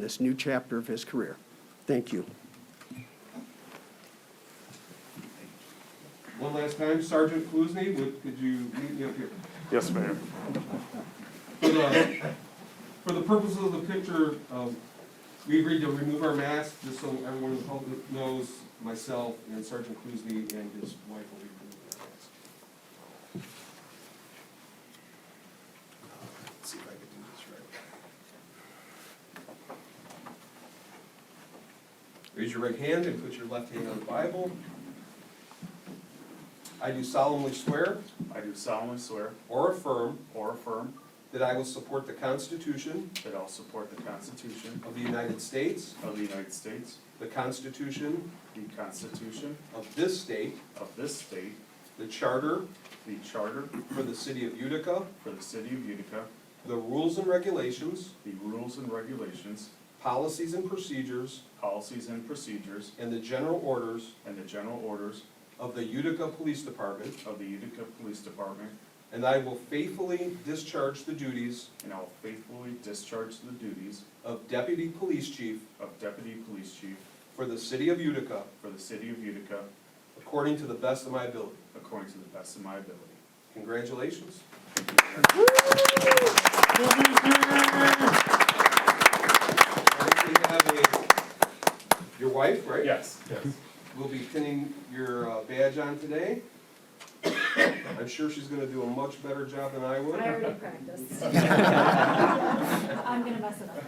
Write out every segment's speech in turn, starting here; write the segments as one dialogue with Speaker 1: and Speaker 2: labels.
Speaker 1: this new chapter of his career. Thank you.
Speaker 2: One last time, Sergeant Kluzny, would, could you meet me up here?
Speaker 3: Yes, Mayor.
Speaker 2: For the, for the purposes of the picture, um, we agreed to remove our masks, just so everyone in the public knows, myself and Sergeant Kluzny and his wife will be removing their masks.
Speaker 4: Let's see if I can do this right.
Speaker 2: Raise your right hand and put your left hand on the Bible. I do solemnly swear
Speaker 3: I do solemnly swear
Speaker 2: or affirm
Speaker 3: or affirm
Speaker 2: that I will support the Constitution
Speaker 3: that I'll support the Constitution
Speaker 2: of the United States,
Speaker 3: of the United States,
Speaker 2: the Constitution
Speaker 3: the Constitution
Speaker 2: of this state,
Speaker 3: of this state,
Speaker 2: the Charter
Speaker 3: the Charter
Speaker 2: for the City of Utica,
Speaker 3: for the City of Utica,
Speaker 2: the rules and regulations,
Speaker 3: the rules and regulations,
Speaker 2: policies and procedures,
Speaker 3: policies and procedures,
Speaker 2: and the general orders
Speaker 3: and the general orders
Speaker 2: of the Utica Police Department,
Speaker 3: of the Utica Police Department,
Speaker 2: and I will faithfully discharge the duties
Speaker 3: and I'll faithfully discharge the duties
Speaker 2: of Deputy Police Chief
Speaker 3: of Deputy Police Chief
Speaker 2: for the City of Utica
Speaker 3: for the City of Utica
Speaker 2: according to the best of my ability.
Speaker 3: according to the best of my ability.
Speaker 2: Congratulations. I think we have a- Your wife, right?
Speaker 3: Yes, yes.
Speaker 2: We'll be pinning your uh, badge on today. I'm sure she's gonna do a much better job than I would.
Speaker 5: I already practiced. I'm gonna mess it up.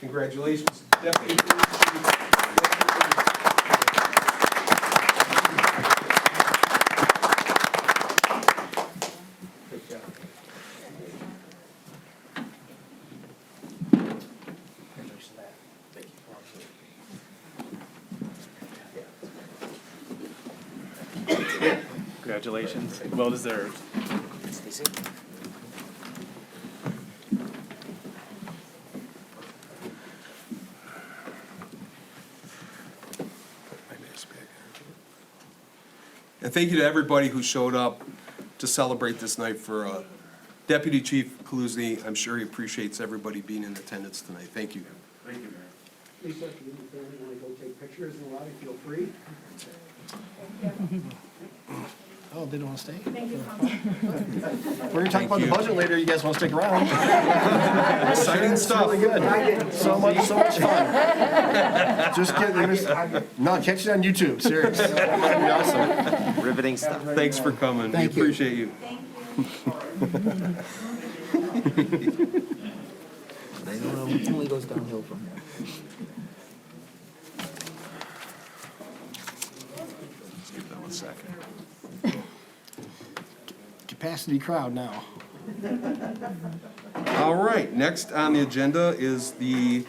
Speaker 2: Congratulations, Deputy. Police Chief. Good job.
Speaker 4: Here's that. Thank you.
Speaker 6: Congratulations. Well deserved.
Speaker 4: Stacy?
Speaker 2: And thank you to everybody who showed up to celebrate this night for uh, Deputy Chief Kaluzny. I'm sure he appreciates everybody being in attendance tonight. Thank you.
Speaker 3: Thank you, Mayor.
Speaker 1: Lisa, if you and your family want to go take pictures and a lot, feel free.
Speaker 4: Oh, they don't want to stay?
Speaker 5: Thank you, Council.
Speaker 4: We're gonna talk about the
Speaker 2: you.
Speaker 4: budget later, you guys want to stick around?
Speaker 2: Exciting stuff.
Speaker 4: Really good. So much, so much fun. Just kidding, we're gonna- no, catch it on YouTube, serious. That'd be awesome.
Speaker 7: Riveting stuff.
Speaker 2: Thanks for coming. We
Speaker 4: Thank you.
Speaker 2: appreciate you.
Speaker 5: Thank you.
Speaker 7: They don't know, it only goes downhill from there.
Speaker 4: Capacity crowd now.
Speaker 2: All right, next on the agenda is the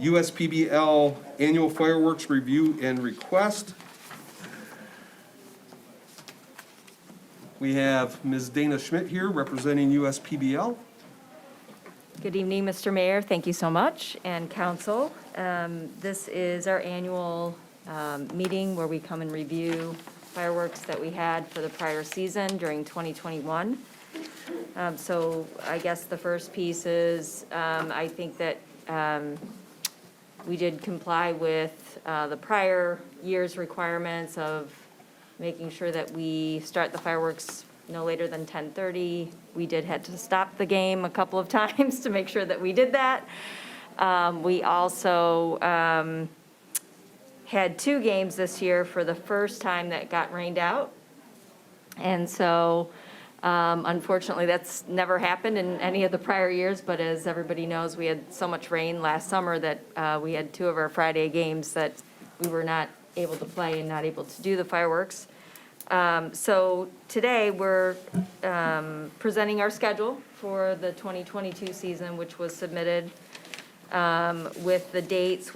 Speaker 2: USPBL Annual Fireworks Review and Request. We have Ms. Dana Schmidt here representing USPBL.
Speaker 8: Good evening, Mr. Mayor. Thank you so much, and council. Um, This is our annual um, meeting where we come and review fireworks that we had for the prior season during 2021. Um, So I guess the first piece is, um, I think that um, we did comply with uh, the prior year's requirements of making sure that we start the fireworks no later than 10:30. We did had to stop the game a couple of times to make sure that we did that. Um, We also um, had two games this year for the first time that got rained out. And so um, unfortunately, that's never happened in any of the prior years, but as everybody knows, we had so much rain last summer that uh, we had two of our Friday games that we were not able to play and not able to do the fireworks. Um, So today, we're um, presenting our schedule for the 2022 season, which was submitted um, um, with the dates,